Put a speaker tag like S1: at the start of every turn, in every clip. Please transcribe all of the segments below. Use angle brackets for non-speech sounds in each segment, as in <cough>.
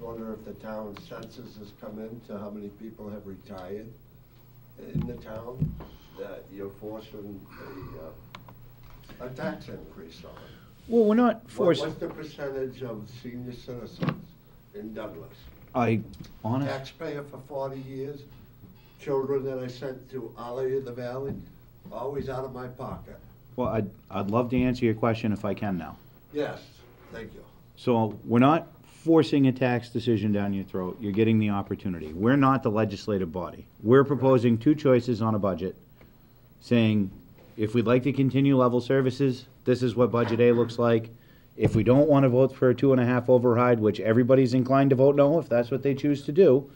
S1: wonder if the town census has come in to how many people have retired in the town that you're forcing a, uh, a tax increase on.
S2: Well, we're not
S1: What-
S2: forced.
S1: What's the percentage of senior citizens in Douglas?
S2: I, honest,
S1: Taxpayer for forty years, children that I sent to Ollie in the Valley, always out of my pocket.
S2: well, I'd, I'd love to answer your question if I can now.
S1: Yes, thank you.
S2: So we're not forcing a tax decision down your throat. You're getting the opportunity. We're not the legislative body. We're proposing two choices on a budget, saying, if we'd like to continue level services, this is what budget A looks like. If we don't want to vote for a two and a half override, which everybody's inclined to vote no, if that's what they choose to do,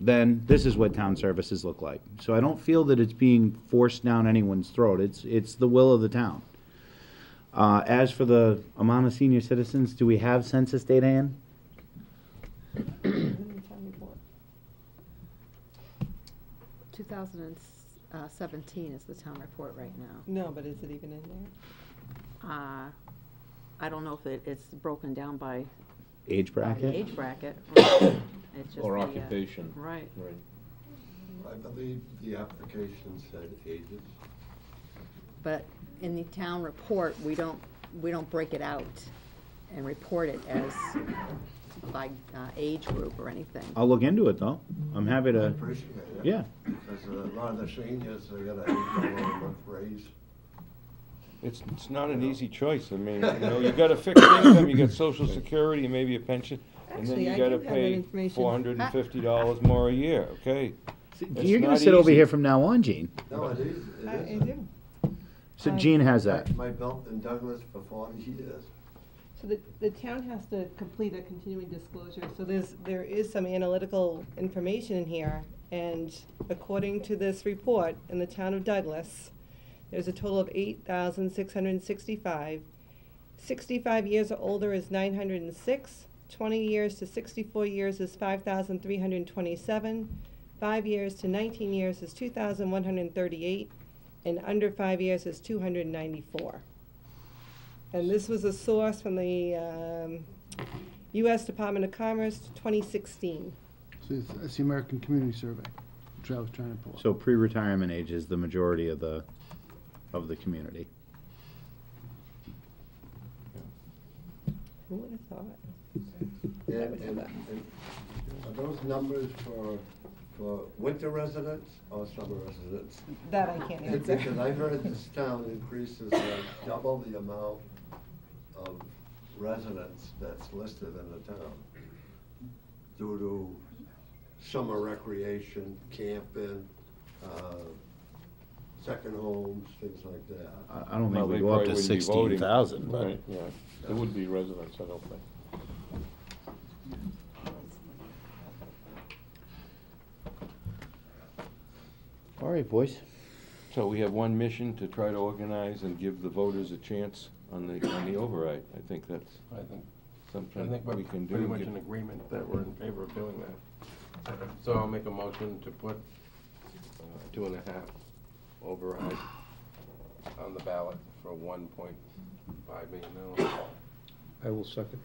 S2: then this is what town services look like. So I don't feel that it's being forced down anyone's throat. It's, it's the will of the town. Uh, as for the amount of senior citizens, do we have census data in?
S3: Two thousand and seventeen is the town report right now.
S4: No, but is it even in there?
S3: Uh, I don't know if it, it's broken down by
S2: Age
S3: by
S2: bracket?
S3: age bracket. It's just
S5: Or
S3: the, uh,
S5: occupation.
S3: Right.
S5: Right.
S1: I believe the application said ages.
S3: But in the town report, we don't, we don't break it out and report it as by uh, age group or anything.
S2: I'll look into it, though. I'm happy
S1: I
S2: to,
S1: appreciate it.
S2: yeah.
S1: Because a lot of the seniors, they got an eight dollar a month raise.
S6: It's, it's not an easy choice, I mean, you
S5: <coughs>
S6: know, you got a fixed income, you got social security, maybe a pension, and then
S4: Actually, I
S6: you
S4: do
S6: gotta
S4: have that
S6: pay
S4: information.
S6: four hundred and fifty dollars more a year, okay? It's
S2: You're gonna
S6: not
S2: sit over
S6: easy.
S2: here from now on, Gene.
S1: No, it is,
S4: I-
S1: it
S4: I
S1: is.
S4: do.
S2: So
S4: Uh,
S2: Gene has that.
S1: My belt in Douglas for forty years.
S4: So the, the town has to complete a continuing disclosure, so there's, there is some analytical information in here. And according to this report, in the town of Douglas, there's a total of eight thousand six hundred and sixty-five. Sixty-five years or older is nine hundred and six, twenty years to sixty-four years is five thousand three hundred and twenty-seven, five years to nineteen years is two thousand one hundred and thirty-eight, and under five years is two hundred and ninety-four. And this was a source from the um, U.S. Department of Commerce, 2016.
S7: So it's, it's the American Community Survey, which I was trying to pull up.
S2: So pre-retirement age is the majority of the, of the community.
S4: Who would have thought?
S1: And, and, and are those numbers for, for winter residents or summer residents?
S4: That I can't
S1: And
S4: answer.
S1: Because I heard this town increases uh, double the amount of residents that's listed in the town due to summer recreation, camping, uh, second homes, things like that.
S2: I, I don't
S6: Well,
S2: think we
S6: they
S2: go up
S6: probably
S2: to
S6: wouldn't be
S2: sixteen
S6: voting.
S2: thousand, but.
S6: Right, yeah, there would be residents, I don't think.
S2: All right, boys.
S6: So we have one mission to try to organize and give the voters a chance on the, on the override, I think that's
S5: I think, I
S6: something
S5: think
S6: we
S5: we're
S6: can do.
S5: pretty much
S6: Give-
S5: in agreement that we're in favor of doing that. So I'll make a motion to put uh, two and a half override on the ballot for one point five million dollars.
S6: I will second.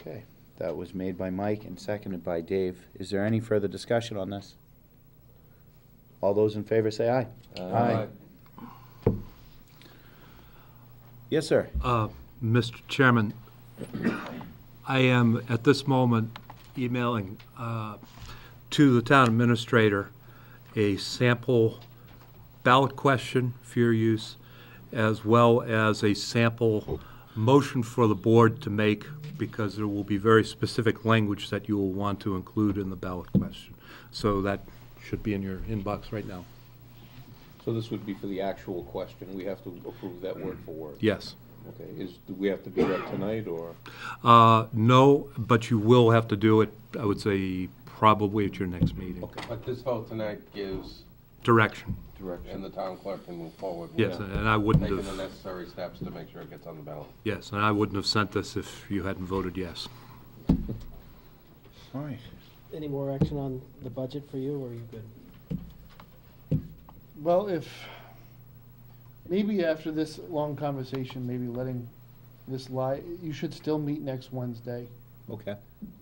S2: Okay. That was made by Mike and seconded by Dave. Is there any further discussion on this? All those in favor say aye. Yes, sir.
S8: Uh, Mr. Chairman, I am at this moment emailing uh, to the town administrator a sample ballot question for your use, as well as a sample motion for the board to make, because there will be very specific language that you will want to include in the ballot question. So that should be in your inbox right now.
S5: So this would be for the actual question, we have to approve that word for word?
S8: Yes.
S5: Okay, is, do we have to do that tonight, or?
S8: Uh, No, but you will have to do it, I would say, probably at your next meeting.
S5: But this vote tonight gives,
S8: Direction,
S5: and
S6: Direction.
S5: the town clerk can move forward.
S8: yes, and I wouldn't
S5: Taking the
S8: have,
S5: necessary steps to make sure it gets on the ballot.
S8: yes, and I wouldn't have sent this if you hadn't voted yes.
S2: All right.
S9: Any more action on the budget for you, or are you good?
S7: Well, if, maybe after this long conversation, maybe letting this lie, you should still meet next Wednesday.
S2: Okay.